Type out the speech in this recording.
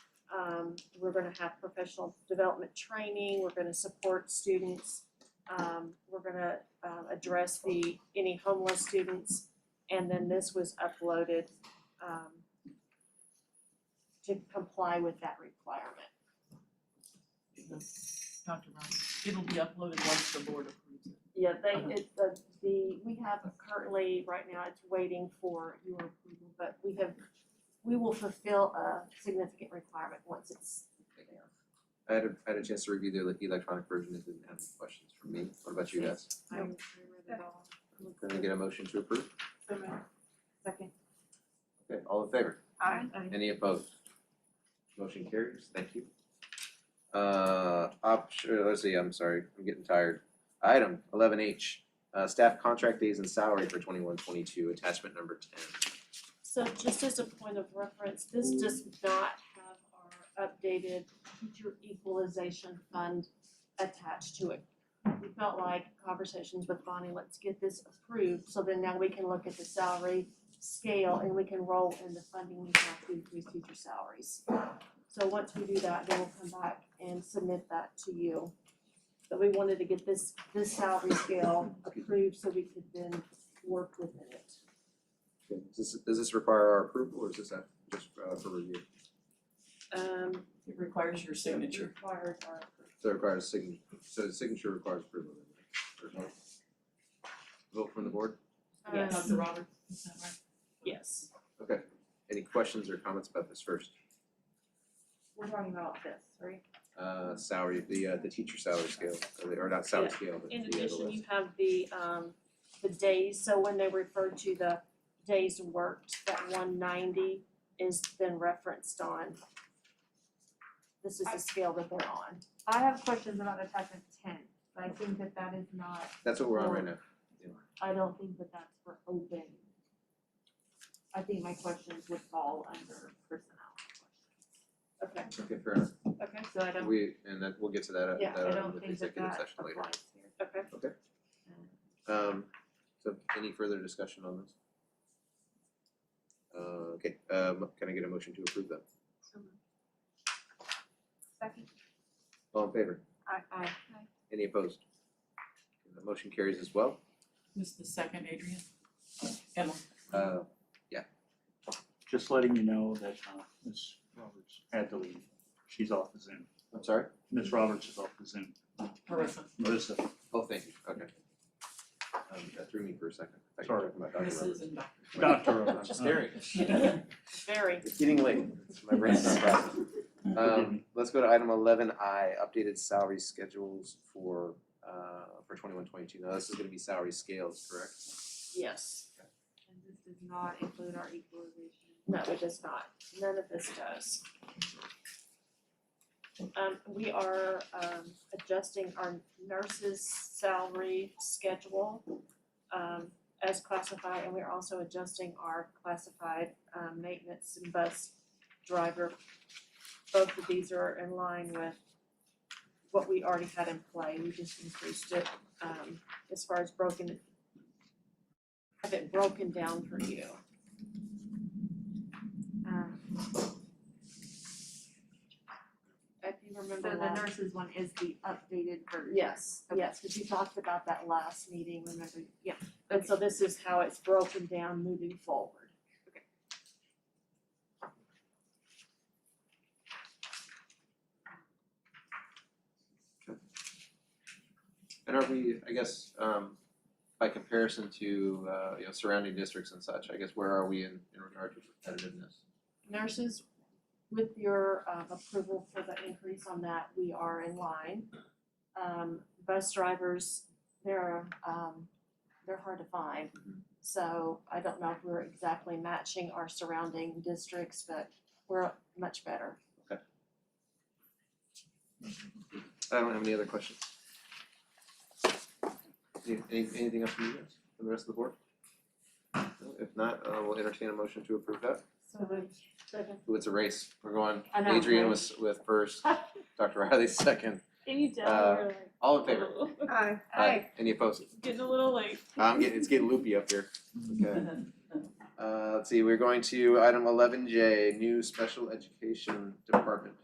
Um we're gonna have professional development training, we're gonna support students. Um we're gonna um address the any homeless students and then this was uploaded um to comply with that requirement. Dr. Ryan, it'll be uploaded once the board approves it. Yeah, Okay. they, it, the, the, we have currently, right now, it's waiting for your approval, but we have, we will fulfill a significant requirement once it's there. I had a, I had a chance to review the electronic version, it didn't have any questions from me, what about you guys? I, I read it all. Can I get a motion to approve? So moved. Second. Okay, all in favor? Aye. Any opposed? Motion carries, thank you. Uh, option, let's see, I'm sorry, I'm getting tired. Item eleven H, uh, staff contract days and salary for twenty-one, twenty-two, attachment number ten. So just as a point of reference, this does not have our updated teacher equalization fund attached to it. We felt like conversations with Bonnie, let's get this approved, so then now we can look at the salary scale and we can roll in the funding we have to increase teacher salaries. So once we do that, then we'll come back and submit that to you. But we wanted to get this, this salary scale approved so we could then work within it. Does this, does this require our approval or is this uh, just uh, for review? Um, It requires your signature. Required our approval. So it requires signature, so the signature requires approval, then, right? Or vote? Vote from the board? Yes. Um, Dr. Robert, is that right? Yes, Okay, any questions or comments about this first? we're talking about this, right? Uh, salary, the uh, the teacher salary scale, or the- or not salary scale, but the In other addition, list. you have the um the days, so when they refer to the days worked, that one ninety is then referenced on. This is the scale that they're on. I have questions about attachment ten, but I think that that is not, That's what we're on right now. I don't think that that's for open. I think my questions would fall under personnel Okay, Okay, fair enough. okay, questions, so I don't, We, and that, we'll get to that, uh, Yeah, that I uh, don't with the think that executive that session later. applies here. okay. Um, so any further discussion on this? Uh, okay, um, can I get a motion to approve that? Second. All in favor? I I Any opposed? The motion carries as well. Who's the second, Adrian? Emma. Uh, Just letting you know that uh, Ms. Roberts had to leave. She's off the Zoom. I'm sorry? Ms. Roberts is off the Zoom. Marissa. Melissa, Oh, thank you, okay. Um, that threw me for a second. I thought you were Sorry. talking Mrs. and Dr. about Dr. Roberts. Dr. Roberts. I'm staring. very, It's getting late, my brain's not processing. Um, let's go to item eleven I, updated salary schedules for, uh, for twenty-one, twenty-two, now this is gonna be salary scales, correct? yes, And this does not include our equalization. no, it does not, none of this does. Um, we are um adjusting our nurses' salary schedule um as classified, and we're also adjusting our classified um maintenance and bus driver. Both of these are in line with what we already had in play, we just increased it um as far as broken have it broken down for you. Um if you So remember last. the nurses one is the updated version. Yes, Okay. yes, because you talked about that last meeting, remember? Yeah. And so this is how it's broken down moving forward. And are we, I guess, um, by comparison to, uh, you know, surrounding districts and such, I guess, where are we in, in regard to competitiveness? Nurses, with your um, approval for the increase on that, we are in line. Um, bus drivers, they're, um, they're hard to find. So I don't know if we're exactly matching our surrounding districts, but we're much better. I don't have any other questions. Any, any- anything else from you guys, from the rest of the board? No? If not, uh, we'll entertain a motion to approve that. So Ooh, it's a race. We're going, I know, Adrian right? was with first, Dr. Riley second. Any doubt, Uh, we're All in favor? Aye. uh, Any opposed? Getting a little late. I'm getting, it's getting loopy up here. Uh, Okay. Uh, let's see, we're going to item eleven J, new special education department